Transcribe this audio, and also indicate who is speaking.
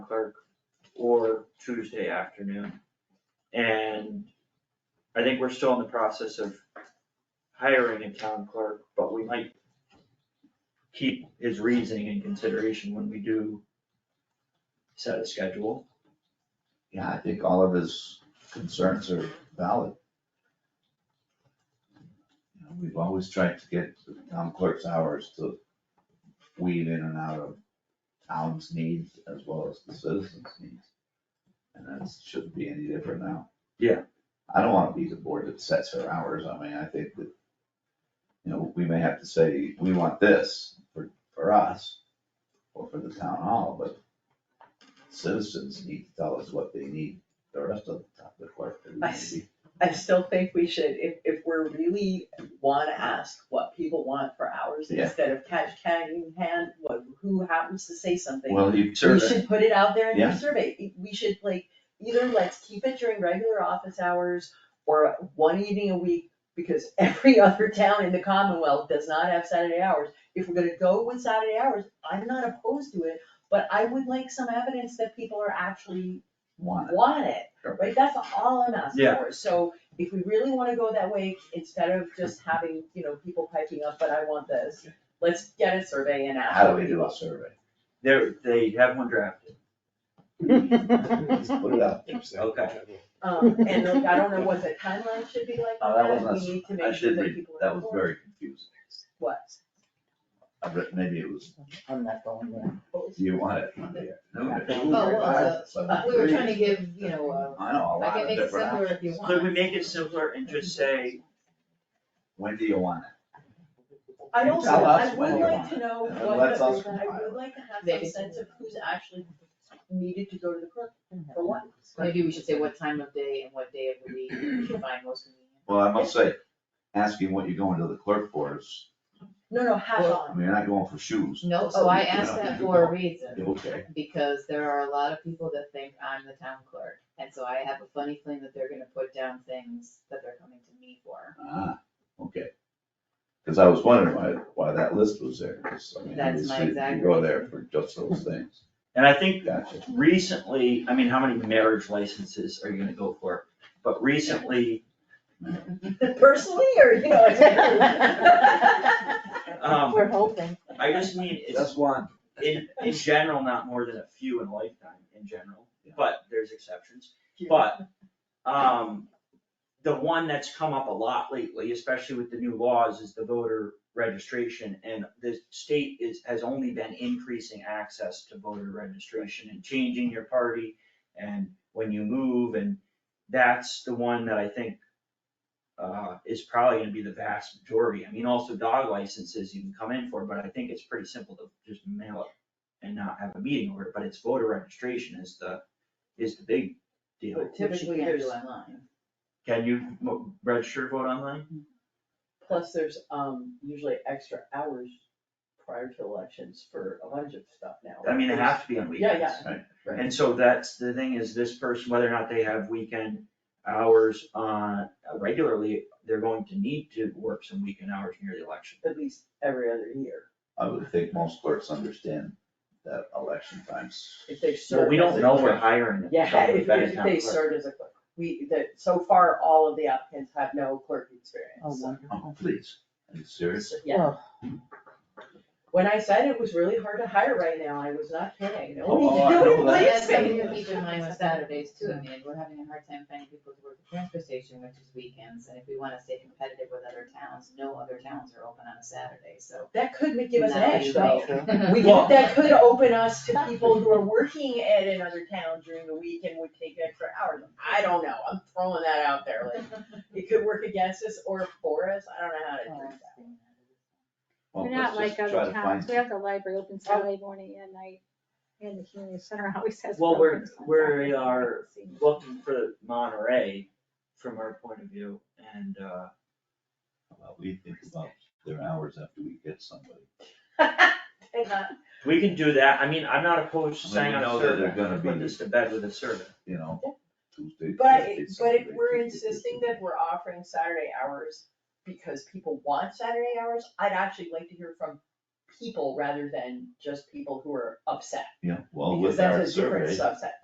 Speaker 1: clerk or Tuesday afternoon. And I think we're still in the process of hiring a town clerk, but we might keep his reasoning in consideration when we do set a schedule.
Speaker 2: Yeah, I think all of his concerns are valid. You know, We've always tried to get the town clerk's hours to weave in and out of town's needs as well as the citizens' needs. And that shouldn't be any different now.
Speaker 1: Yeah.
Speaker 2: I don't wanna be the board that sets her hours, I mean, I think that, you know, we may have to say, we want this for, for us, or for the town hall, but citizens need to tell us what they need, the rest of the town, the clerk, the
Speaker 3: I
Speaker 2: community.
Speaker 3: I still think we should, if, if we're really wanna ask what people want for hours,
Speaker 2: Yeah.
Speaker 3: instead of catch cat in hand, what, who happens to say something.
Speaker 2: Well, you
Speaker 3: We
Speaker 2: certainly,
Speaker 3: should put it out there in
Speaker 2: Yeah.
Speaker 3: the survey, E, we should like, either let's keep it during regular office hours or one evening a week, because every other town in the Commonwealth does not have Saturday hours. If we're gonna go with Saturday hours, I'm not opposed to it, but I would like some evidence that people are actually
Speaker 2: want it.
Speaker 3: want it,
Speaker 2: Sure.
Speaker 3: right? That's all I'm asking
Speaker 1: Yeah.
Speaker 3: for. So if we really wanna go that way, instead of just having, you know, people piping up, but I want this, let's get a survey and ask.
Speaker 2: How do we do a survey?
Speaker 1: There, they have one drafted.
Speaker 2: Just put it out there.
Speaker 1: Okay.
Speaker 3: Um, and look, I don't know what the timeline should be like
Speaker 2: Oh,
Speaker 3: on
Speaker 2: that was
Speaker 3: that,
Speaker 2: us.
Speaker 3: we need to
Speaker 2: I
Speaker 3: make sure
Speaker 2: should
Speaker 3: that
Speaker 2: read,
Speaker 3: people are
Speaker 2: that was
Speaker 3: informed.
Speaker 2: very confusing.
Speaker 3: What?
Speaker 2: I read, maybe it was,
Speaker 4: I'm not going there.
Speaker 3: What was-
Speaker 2: do you want it? No, it
Speaker 1: Oh,
Speaker 2: was very
Speaker 5: well,
Speaker 2: hard, so
Speaker 3: uh,
Speaker 5: We were trying to give, you know,
Speaker 2: I know, a
Speaker 5: uh, I
Speaker 2: lot
Speaker 5: can
Speaker 2: of
Speaker 5: make it
Speaker 2: different
Speaker 5: simpler if you
Speaker 2: options.
Speaker 5: want.
Speaker 1: Could we make it simpler and just say,
Speaker 2: When do you want it?
Speaker 3: I'd
Speaker 2: You
Speaker 3: also,
Speaker 2: tell us
Speaker 3: I
Speaker 2: when
Speaker 3: would
Speaker 2: you
Speaker 3: like
Speaker 2: want
Speaker 3: to
Speaker 2: it,
Speaker 3: know
Speaker 2: and
Speaker 3: what,
Speaker 2: let's
Speaker 3: the-
Speaker 2: us
Speaker 3: I
Speaker 2: compile
Speaker 3: would like to have some
Speaker 5: Maybe.
Speaker 3: sense of who's actually needed to go to the clerk for what.
Speaker 5: Mm-hmm. Maybe we should say what time of day and what day of the week you find most convenient.
Speaker 2: Well, I must say, asking what you're going to the clerk for is,
Speaker 3: No, no, hat
Speaker 5: Well-
Speaker 2: I
Speaker 3: on.
Speaker 2: mean, you're not going for shoes.
Speaker 5: No,
Speaker 2: So
Speaker 5: so I
Speaker 2: you can
Speaker 5: asked
Speaker 2: have
Speaker 5: that
Speaker 2: the
Speaker 5: for a
Speaker 2: people.
Speaker 3: Mm-hmm.
Speaker 5: reason,
Speaker 2: Okay,
Speaker 5: because there are a lot of people that think I'm the town clerk. And so I have a funny feeling that they're gonna put down things that they're coming to me for.
Speaker 2: ah, okay. Cause I was wondering why, why that list was there, 'cause, I mean,
Speaker 5: That's my
Speaker 2: obviously, you
Speaker 5: exact
Speaker 2: go there for just those things,
Speaker 1: and I think
Speaker 2: gotcha.
Speaker 1: recently, I mean, how many marriage licenses are you gonna go for? But recently,
Speaker 3: Personally, or, you know.
Speaker 1: um,
Speaker 4: We're hoping.
Speaker 1: I just mean, it's
Speaker 2: That's one.
Speaker 1: in, in general, not more than a few in a lifetime, in general, but there's exceptions.
Speaker 3: Yeah.
Speaker 1: But, um, the one that's come up a lot lately, especially with the new laws, is the voter registration. And the state is, has only been increasing access to voter registration and changing your party and when you move, and that's the one that I think uh, is probably gonna be the vast majority. I mean, also dog licenses you can come in for, but I think it's pretty simple to just mail it and not have a meeting over it, but it's voter registration is the, is the big deal.
Speaker 3: But typically
Speaker 5: Which you can't
Speaker 3: there's
Speaker 5: do online.
Speaker 1: Can you mo- register to vote online?
Speaker 3: Plus, there's um usually extra hours prior to elections for a bunch of stuff now.
Speaker 1: I mean, it has to be on
Speaker 3: Yeah,
Speaker 1: weekends.
Speaker 3: yeah.
Speaker 1: And so that's, the thing is, this person, whether or not they have weekend hours on, regularly, they're going to need to work some weekend hours near the election.
Speaker 3: At least every other year,
Speaker 2: I would think most clerks understand that election times,
Speaker 3: if they
Speaker 1: So
Speaker 3: serve.
Speaker 1: we
Speaker 3: as
Speaker 1: don't
Speaker 3: a
Speaker 1: know we're
Speaker 3: clerk.
Speaker 1: hiring.
Speaker 3: Yeah,
Speaker 1: someone
Speaker 3: if
Speaker 1: that is
Speaker 3: if
Speaker 1: not
Speaker 3: they
Speaker 1: clerk.
Speaker 3: serve as a clerk. We, that, so far, all of the applicants have no clerk
Speaker 4: Oh,
Speaker 3: experience.
Speaker 2: oh,
Speaker 4: wonderful.
Speaker 2: please, are you serious?
Speaker 3: So, Yeah, when I said it was really hard to hire right now, I was not kidding. No one-
Speaker 2: Oh, I
Speaker 3: no
Speaker 2: know
Speaker 3: one
Speaker 2: that.
Speaker 5: But
Speaker 3: believes
Speaker 5: that's something
Speaker 3: me.
Speaker 5: to keep in mind with Saturdays too, I mean, we're having a hard time finding people to work the transfer station, which is weekends, and if we wanna stay competitive with other towns, no other towns are open on a Saturday, so.
Speaker 3: That could make- give us an
Speaker 5: Now
Speaker 3: edge
Speaker 5: you
Speaker 3: though.
Speaker 4: True.
Speaker 5: Hmm.
Speaker 3: We,
Speaker 1: Well-
Speaker 3: could- that could open us to people who are working at another town during the week and would take extra hours. I don't know, I'm throwing that out there, like, it could work against us or for us, I don't know how to do that.
Speaker 2: Well,
Speaker 6: We're not
Speaker 2: let's
Speaker 6: like
Speaker 2: just try
Speaker 6: other
Speaker 2: to
Speaker 6: towns,
Speaker 2: find- Oh.
Speaker 6: we have the library open Saturday morning and night, and the community center always has.
Speaker 1: Well, we're-
Speaker 6: programs on
Speaker 1: we're
Speaker 6: Saturday.
Speaker 1: are- looking for Monterey from our point of view, and, uh,
Speaker 2: Well, we think about their hours after we get somebody.
Speaker 3: And not-
Speaker 1: we can do that, I mean, I'm not opposed to
Speaker 2: I mean,
Speaker 1: saying
Speaker 2: we
Speaker 1: on
Speaker 2: know
Speaker 1: a
Speaker 2: that they're
Speaker 1: survey,
Speaker 2: gonna
Speaker 1: let's put
Speaker 2: be-
Speaker 1: this to bed with a survey.
Speaker 2: you know, Tuesday.
Speaker 3: But,
Speaker 2: Thursday,
Speaker 3: it- but if
Speaker 2: Saturday,
Speaker 3: we're
Speaker 2: Tuesday,
Speaker 3: insisting
Speaker 2: Thursday.
Speaker 3: that we're offering Saturday hours because people want Saturday hours, I'd actually like to hear from
Speaker 2: people rather than just people who are upset.
Speaker 3: Yeah, well,
Speaker 2: Because
Speaker 3: with our survey.
Speaker 2: that's a different subset.